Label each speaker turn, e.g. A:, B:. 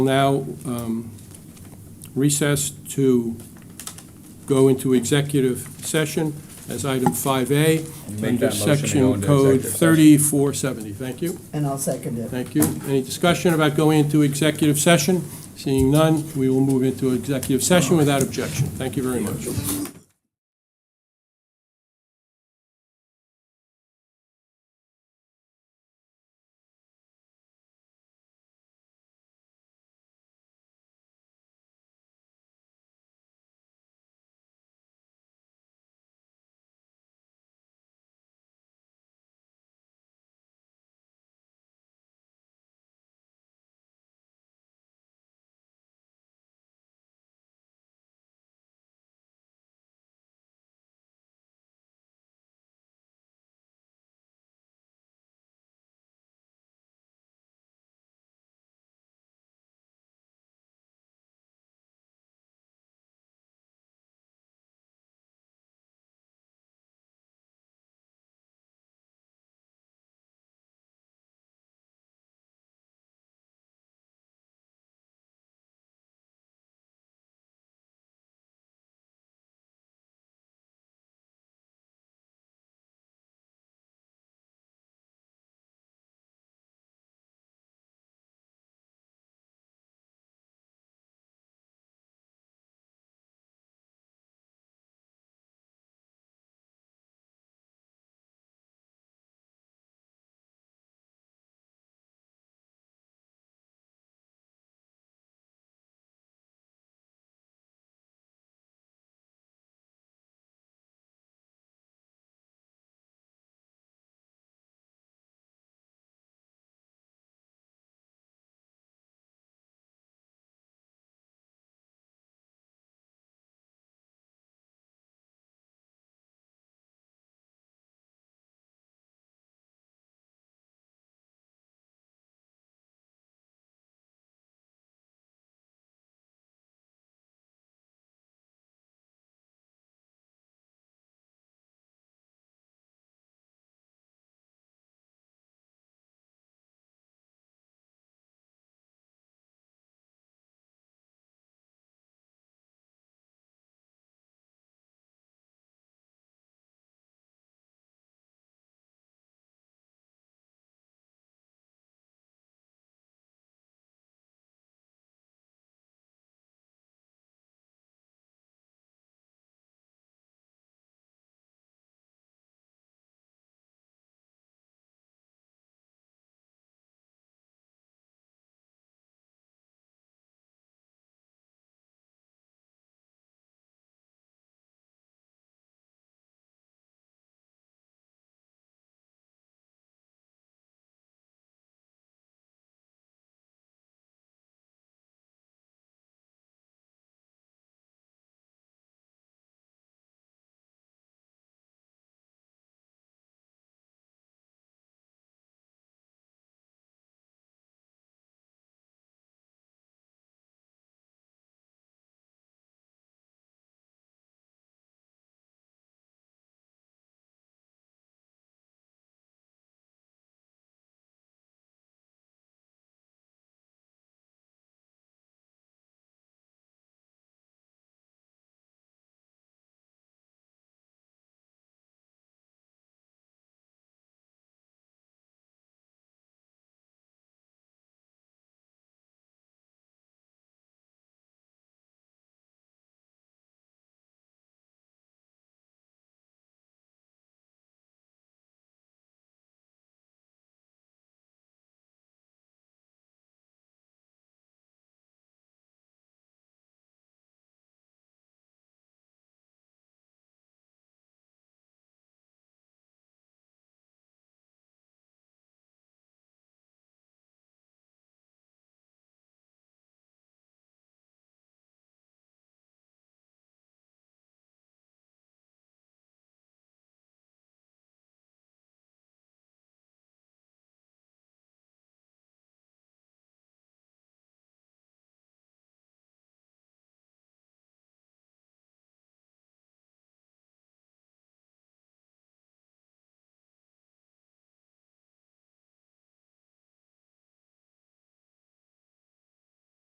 A: Now um, recess to go into executive session as item 5A
B: Make
A: under
B: that motion to go
A: section
B: into
A: code
B: executive session.
A: 3470. Thank you,
C: And I'll second it.
A: thank you. Any discussion about going into executive session? Seeing none, we will move into executive session without objection. Thank you very much.